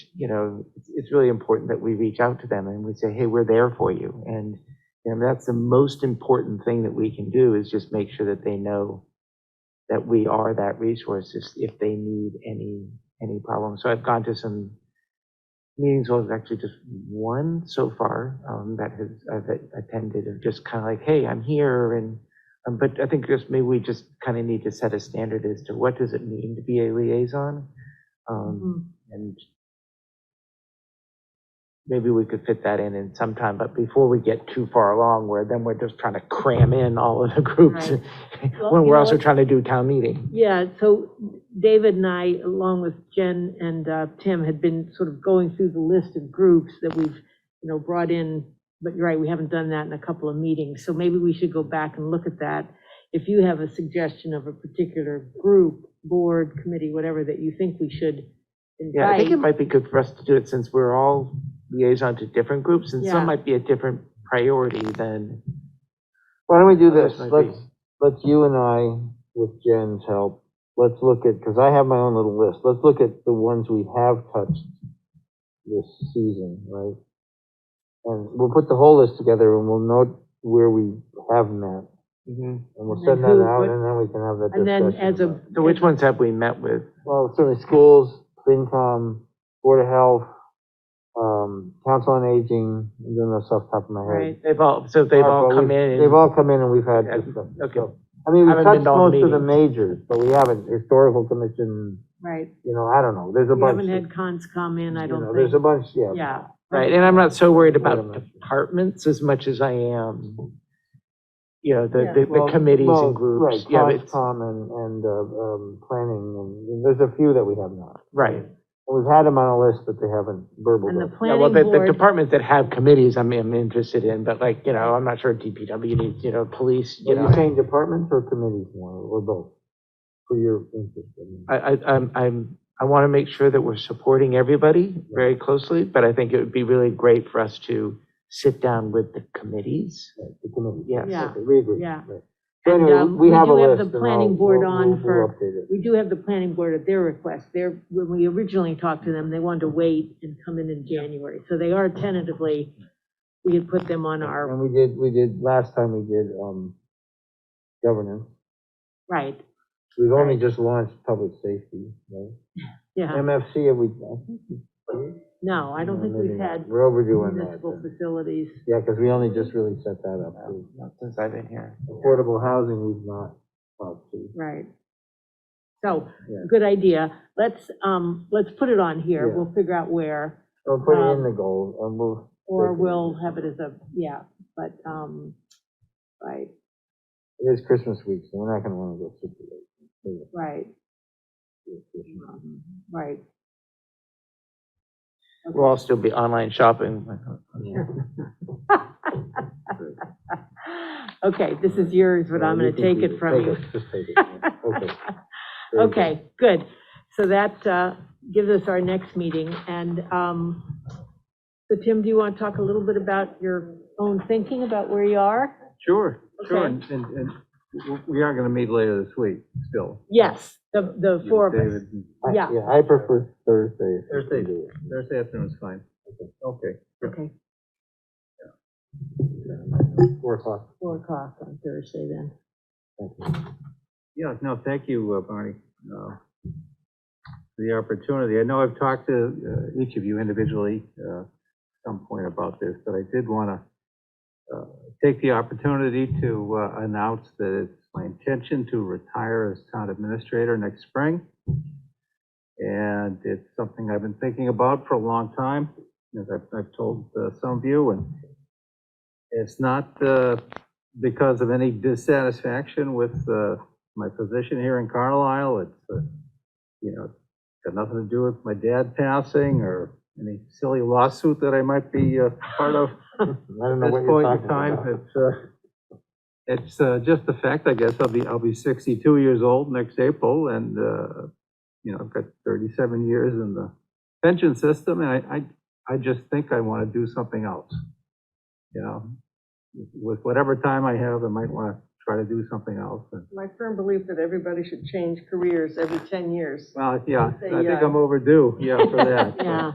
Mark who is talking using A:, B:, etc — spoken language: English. A: you know, it's, it's really important that we reach out to them and we say, hey, we're there for you. And, you know, that's the most important thing that we can do is just make sure that they know that we are that resource if, if they need any, any problem. So I've gone to some meetings, well, there's actually just one so far um, that has, I've attended of just kind of like, hey, I'm here and, um, but I think just maybe we just kind of need to set a standard as to what does it mean to be a liaison? Um,
B: Mm-hmm.
A: and maybe we could fit that in in some time, but before we get too far along, where then we're just trying to cram in all of the groups,
B: Right. Well,
A: when
B: you
A: we're
B: know
A: also
B: what?
A: trying to do town meeting.
B: Yeah, so David and I, along with Jen and uh, Tim, had been sort of going through the list of groups that we've, you know, brought in, but you're right, we haven't done that in a couple of meetings, so maybe we should go back and look at that. If you have a suggestion of a particular group, board, committee, whatever, that you think we should
A: Yeah, I
B: invite.
A: think it might be good for us to do it since we're all liaison to different groups, and
B: Yeah.
A: some might be a different priority than.
C: Why don't we do
A: others
C: this?
A: might
C: Let's,
A: be.
C: let's you and I, with Jen's help, let's look at, because I have my own little list. Let's look at the ones we have touched this season, right? And we'll put the whole list together and we'll note where we have met.
A: Mhm.
C: And we'll
B: And then
C: send that
B: who-
C: out
B: what-
C: and then we can have that
B: And
C: discussion.
B: then as a.
C: about it.
A: So which ones have we met with?
C: Well, certainly schools, FinCom, Board of Health, um, Council on Aging, I'm doing this off the top of my head.
B: Right.
A: They've all, so they've all
C: ARPA,
A: come
C: we-
A: in and.
C: They've all come in and we've had
A: Yeah,
C: discussions.
A: okay.
C: So, I mean, we've
A: Haven't been
C: touched
A: to all the
C: most of the majors, but we haven't, historical commission,
B: Right,
C: you know, I don't know, there's a
B: we
C: bunch.
B: haven't
C: that-
B: had cons come in, I
C: you know,
B: don't
C: There's a
B: think,
C: bunch, yeah.
B: yeah.
A: Right, and I'm not so worried
C: Wait a
A: about
C: minute.
A: departments as much as I am, you know, the,
B: Yeah.
A: the- the
C: Well,
A: committees
C: well,
A: and groups.
C: Right,
A: Yeah, it's-
C: COSCOM and, and, uh, um, planning, and there's a few that we have not.
A: Right.
C: We've had them on a list, but they haven't
B: And
C: burbled
B: the
C: up.
A: Yeah, well,
B: planning
A: the, the
B: board,
A: departments that have committees, I'm, I'm interested in, but like, you know, I'm not sure DPW needs, you know, police, you
C: Are you
A: know.
C: saying departments or committees more, or both, for your interest? uh, I mean?
A: I, I, I'm, I'm, I want to make sure that we're supporting everybody very closely, but I think it would be really great for us to sit down with the committees.
C: Right, The committee.
A: Yes.
B: Yeah.
C: Okay, We agree.
B: Yeah.
C: Right. So
B: And,
C: anyway,
B: um,
C: we
B: we
C: have a
B: do have
C: list.
B: the
C: and I'll-
B: planning board
C: we'll-
B: on
C: we'll-
B: for-
C: we'll update it.
B: we do have the planning board at their request, their, when we originally talked to them, they wanted to wait and come in in January, so they are tentatively, we had put them on our,
C: And we did, we did, last time we did, um, governance.
B: right,
C: We've only just launched public safety, right?
B: yeah,
C: MFC, have we? I think we-
B: no, I don't think
C: no,
B: we've
C: maybe not.
B: had
C: We're overdue on that.
B: municipal facilities,
C: Yeah, because we only just really set that up. too.
A: Not Since I've been here.
C: Affordable housing, we've not talked to.
B: right. So,
C: Yeah.
B: good idea, let's, um, let's put it on here,
C: Yeah.
B: we'll figure out where,
C: So put it in
B: Um,
C: the goal and we'll.
B: or
C: Great.
B: we'll have it as a, yeah, but, um, right,
C: It is Christmas week, so we're not gonna wanna go super late. Yeah,
B: right,
C: it's Christmas.
B: um, right.
A: We'll all still be online shopping.
C: Yeah.
B: Okay, this is yours, but I'm
C: Yeah, you
B: going to
C: can
B: take
C: do
B: it from you.
C: Just take it, yeah. okay. Very good.
B: Okay, good. So that uh, gives us our next meeting. And um, so Tim, do you want to talk a little bit about your own thinking about where you are?
D: Sure, sure,
B: Okay.
D: and, and and w- we are gonna meet later this week, still.
B: Yes, the, the
D: You,
B: four of us.
D: David, and-
C: I-
B: Yeah.
C: Yeah, I prefer Thursday. if we can
D: Thursday.
C: do it.
D: Thursday afternoon is fine. Okay.
B: Okay,
C: Four o'clock.
B: four o'clock on Thursday then.
C: Thank you.
D: Yeah, no, thank you, uh, Barney, uh, for the opportunity. I know I've talked to uh, each of you individually uh, at some point about this, but I did want to take the opportunity to uh, announce that it's my intention to retire as town administrator next spring. And it's something I've been thinking about for a long time, as I've I've told uh, some of you, and it's not uh, because of any dissatisfaction with uh, my position here in Carlisle. It's, uh, you know, got nothing to do with my dad passing or any silly lawsuit that I might be uh, part of
C: I don't know
D: at
C: what
D: this
C: you're
D: point
C: talking
D: in time.
C: about.
D: It's, uh, it's uh, just the fact, I guess, I'll be, I'll be 62 years old next April and, uh, you know, I've got 37 years in the pension system and I, I, I just think I want to do something else. You know, with whatever time I have, I might want to try to do something else. And
E: My firm belief that everybody should change careers every 10 years.
D: Well, yeah, I
E: Say,
D: think
E: uh,
D: I'm overdue, yeah, for that.
B: Yeah.